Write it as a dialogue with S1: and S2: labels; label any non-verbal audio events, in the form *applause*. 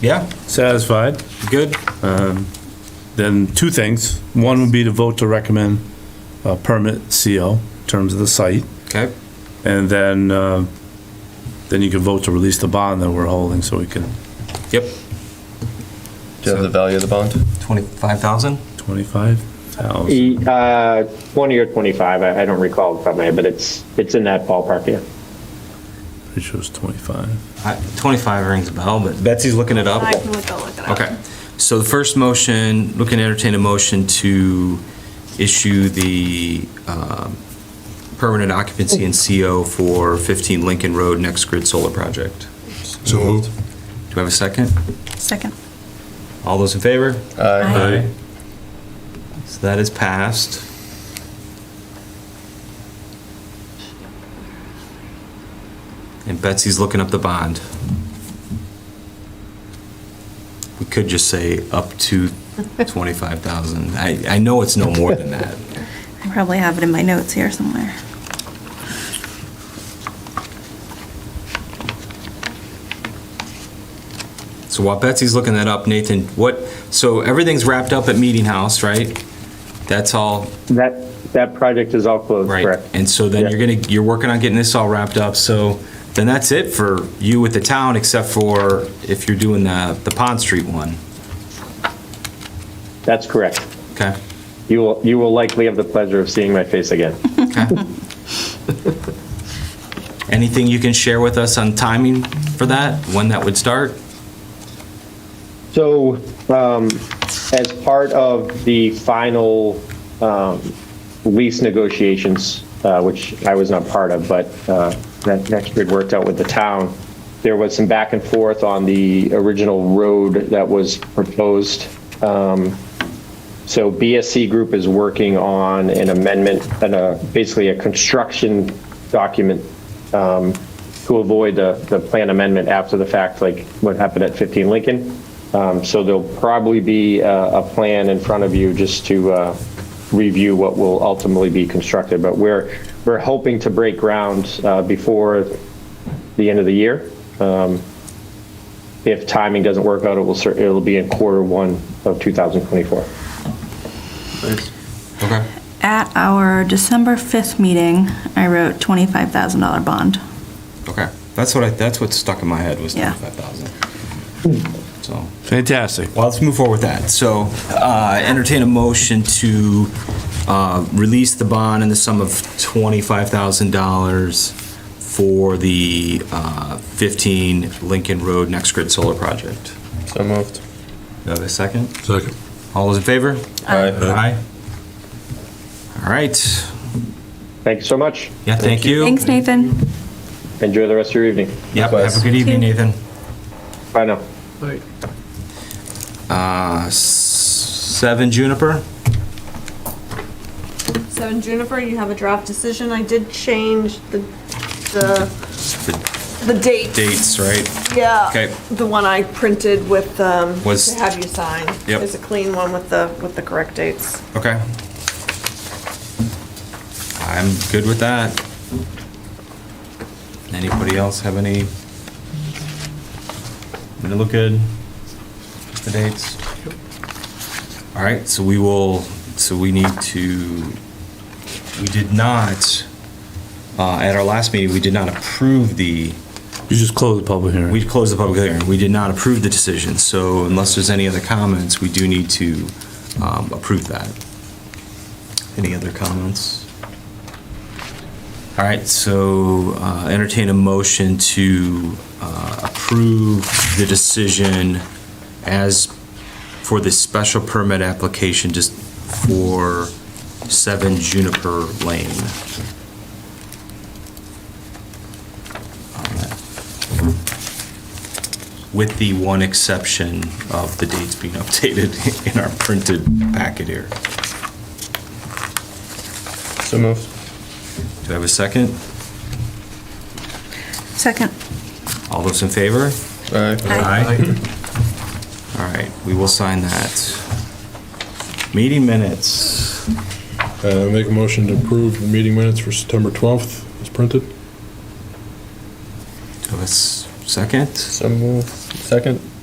S1: Yeah,
S2: satisfied,
S1: good.
S2: then two things. One would be to vote to recommend a permit CO in terms of the site.
S1: Okay,
S2: And then, uh, then you can vote to release the bond that we're holding so we can,
S1: yep.
S3: Do you have the value of the bond?
S1: 25,000?
S2: 25,000.
S4: E- Uh, 20 or 25, I I don't recall off the top of my head, but it's, it's in that ballpark, yeah.
S2: Pretty sure it's 25.
S1: I- 25 rings a bell, but Betsy's looking it up.
S5: I can look, I'll look it up.
S1: Okay, so the first motion, looking to entertain a motion to issue the um, permanent occupancy and CO for 15 Lincoln Road Next Grid Solar Project.
S6: So moved.
S1: Do I have a second?
S5: Second.
S1: All those in favor?
S3: Aye.
S1: So that is passed. And Betsy's looking up the bond. We could just say up to 25,000. I, I know it's no more than that.
S5: I probably have it in my notes here somewhere.
S1: So while Betsy's looking that up, Nathan, what, so everything's wrapped up at Meeting House, right? That's all,
S4: That, that project is all closed,
S1: right?
S4: correct?
S1: And so then
S4: Yeah.
S1: you're gonna, you're working on getting this all wrapped up, so then that's it for you with the town, except for if you're doing the, the Pond Street one,
S4: That's correct.
S1: okay?
S4: You will, you will likely have the pleasure of seeing my face again. *laughs*
S1: Okay. Anything you can share with us on timing for that, when that would start?
S4: So, um, as part of the final, um, lease negotiations, uh, which I was not part of, but, uh, that next grid worked out with the town, there was some back and forth on the original road that was proposed. Um, so BSC Group is working on an amendment and a, basically a construction document, um, to avoid the, the plan amendment after the fact, like what happened at 15 Lincoln. Um, So there'll probably be a, a plan in front of you just to uh, review what will ultimately be constructed. But we're, we're hoping to break ground uh, before the end of the year. Um, If timing doesn't work out, it will, cer- it'll be in quarter one of 2024.
S1: Okay.
S5: At our December 5th meeting, I wrote $25,000 bond.
S1: Okay, that's what I, that's what stuck in my head was
S5: Yeah.
S1: 25,000.
S4: Hmm.
S1: So,
S2: Fantastic.
S1: well, let's move forward with that. So uh, entertain a motion to uh, release the bond in the sum of $25,000 for the uh, 15 Lincoln Road Next Grid Solar Project.
S3: So moved.
S1: Do I have a second?
S6: Second.
S1: All those in favor?
S3: Aye.
S1: Aye. All right.
S4: Thank you so much.
S1: Yeah, thank you.
S5: Thanks, Nathan.
S4: Enjoy the rest of your evening.
S1: Yep, have a good evening, Nathan.
S4: Bye now.
S1: Uh, s- Seven Juniper?
S7: Seven Juniper, you have a draft decision. I did change the, the, the date.
S1: Dates, right?
S7: Yeah.
S1: Okay.
S7: The one I printed with, um,
S1: Was-
S7: to have you sign.
S1: Yep.
S7: Is a clean one with the, with the correct dates.
S1: Okay. I'm good with that. Anybody else have any? Does it look good? Just the dates? All right, so we will, so we need to, we did not, uh, at our last meeting, we did not approve the,
S2: You just close the public
S1: we
S2: hearing.
S1: closed the public hearing. We did not approve the decision, so unless there's any other comments, we do need to um, approve that. Any other comments? All right, so uh, entertain a motion to uh, approve the decision as for the special permit application just for 7 Juniper Lane. With the one exception of the dates being updated *laughs* in our printed packet here.
S3: So moved.
S1: Do I have a second?
S5: Second.
S1: All those in favor?
S3: Aye.
S1: All right, we will sign that. Meeting minutes.
S6: Uh, Make a motion to approve the meeting minutes for September 12th as printed.
S1: Do I have a s- second?
S3: So moved. Second.